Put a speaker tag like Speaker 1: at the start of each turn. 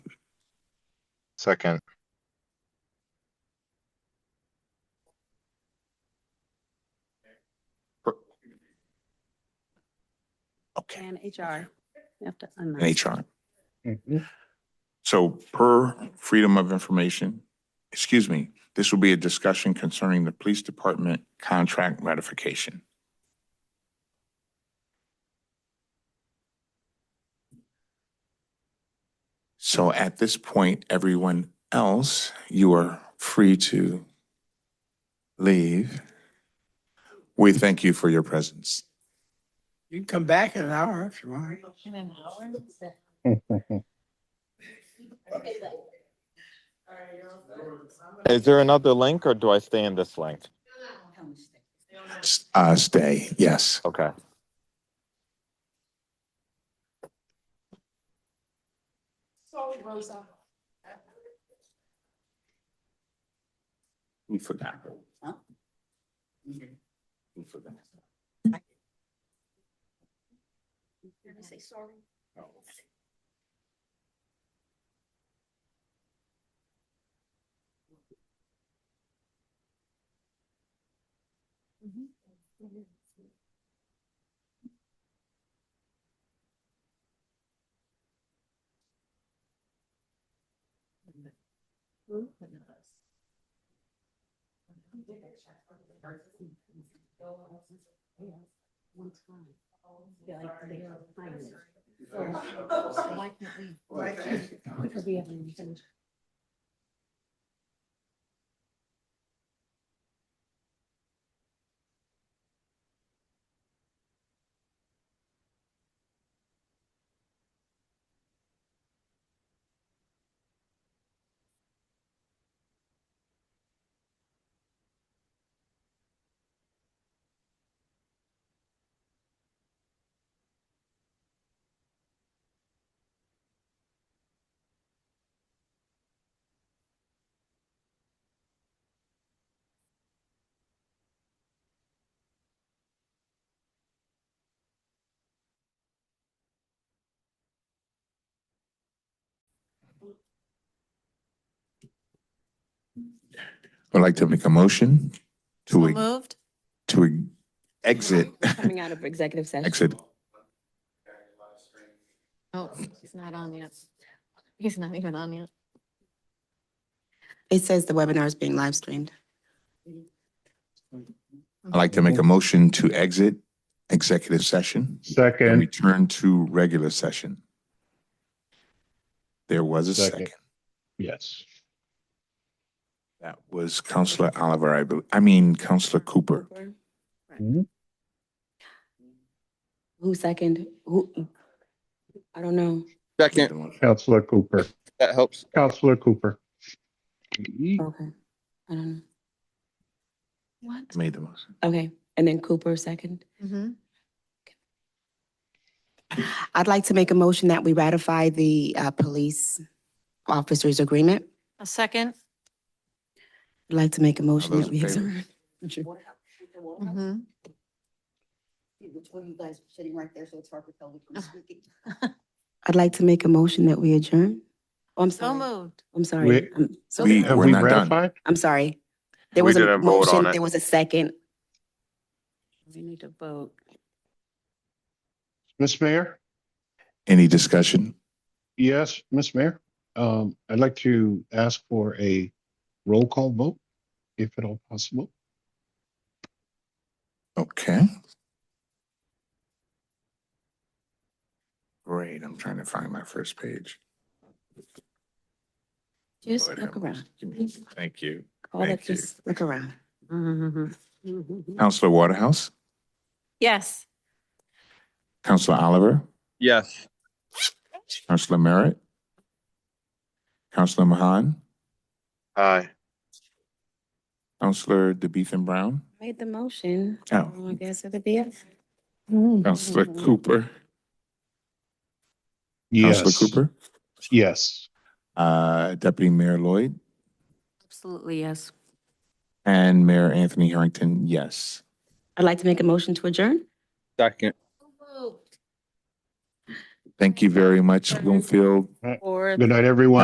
Speaker 1: Second,
Speaker 2: Okay,
Speaker 3: And HR. You have to unmute.
Speaker 2: and HR. So per Freedom of Information, excuse me, this will be a discussion concerning the Police Department contract ratification. So at this point, everyone else, you are free to leave. We thank you for your presence.
Speaker 4: You can come back in an hour if you want.
Speaker 1: is there another link or do I stay in this link?
Speaker 2: S- Uh, stay, yes.
Speaker 1: Okay.
Speaker 2: We forgot. We forgot. I'd like to make a motion to, e-
Speaker 5: Moved?
Speaker 2: to e- exit,
Speaker 6: Oh, Coming out of executive session.
Speaker 2: exit.
Speaker 5: Oh, he's not on yet. He's not even on yet.
Speaker 6: It says the webinar is being live streamed.
Speaker 2: I'd like to make a motion to exit executive session and
Speaker 7: Second,
Speaker 2: return to regular session. There was a
Speaker 7: Second.
Speaker 2: second.
Speaker 7: yes.
Speaker 2: That was Counselor Oliver, I believe, I mean Counselor Cooper.
Speaker 6: Who second? Who? I don't know.
Speaker 8: Second,
Speaker 7: Counselor Cooper,
Speaker 8: that helps.
Speaker 7: Counselor Cooper.
Speaker 6: Okay. I don't know.
Speaker 5: What?
Speaker 2: Made the motion.
Speaker 6: Okay. And then Cooper second.
Speaker 5: Mhm.
Speaker 6: I'd like to make a motion that we ratify the uh, police officers agreement.
Speaker 5: A second?
Speaker 6: I'd like to make a motion
Speaker 2: those
Speaker 6: that we
Speaker 2: in favor?
Speaker 6: adjourn.
Speaker 5: Mhm.
Speaker 9: Which one of you guys are sitting right there, so it's hard to tell which one's speaking.
Speaker 6: I'd like to make a motion that we adjourn. Oh, I'm
Speaker 5: So
Speaker 6: sorry.
Speaker 5: moved.
Speaker 6: I'm sorry.
Speaker 7: We-
Speaker 6: I'm so
Speaker 2: We-
Speaker 6: sorry.
Speaker 2: We're not done.
Speaker 6: I'm sorry. There
Speaker 1: We
Speaker 6: was a
Speaker 1: didn't vote
Speaker 6: motion,
Speaker 1: on it.
Speaker 6: there was a second.
Speaker 3: We need to vote.
Speaker 7: Miss Mayor?
Speaker 2: Any discussion?
Speaker 7: Yes, Miss Mayor. Um, I'd like to ask for a roll call vote, if at all possible.
Speaker 2: Okay. Great, I'm trying to find my first page.
Speaker 6: Just
Speaker 2: Lord
Speaker 6: look
Speaker 2: have
Speaker 6: around.
Speaker 2: mercy. Thank you.
Speaker 6: All that,
Speaker 2: Thank you.
Speaker 6: just look around.
Speaker 3: Mm-hmm.
Speaker 2: Counselor Waterhouse,
Speaker 5: Yes.
Speaker 2: Counselor Oliver,
Speaker 8: Yes.
Speaker 2: Counselor Merritt, Counselor Mahan,
Speaker 1: Aye.
Speaker 2: Counselor DeBeetham Brown,
Speaker 6: Made the motion.
Speaker 2: Oh.
Speaker 6: I guess it'll be it.
Speaker 2: Counselor Cooper, Counselor
Speaker 7: Yes.
Speaker 2: Cooper,
Speaker 7: Yes.
Speaker 2: uh, Deputy Mayor Lloyd,
Speaker 3: Absolutely, yes.
Speaker 2: and Mayor Anthony Harrington, yes.
Speaker 6: I'd like to make a motion to adjourn.
Speaker 8: Second.
Speaker 5: Moved.
Speaker 2: Thank you very much, Bloomfield.
Speaker 7: Good night, everyone.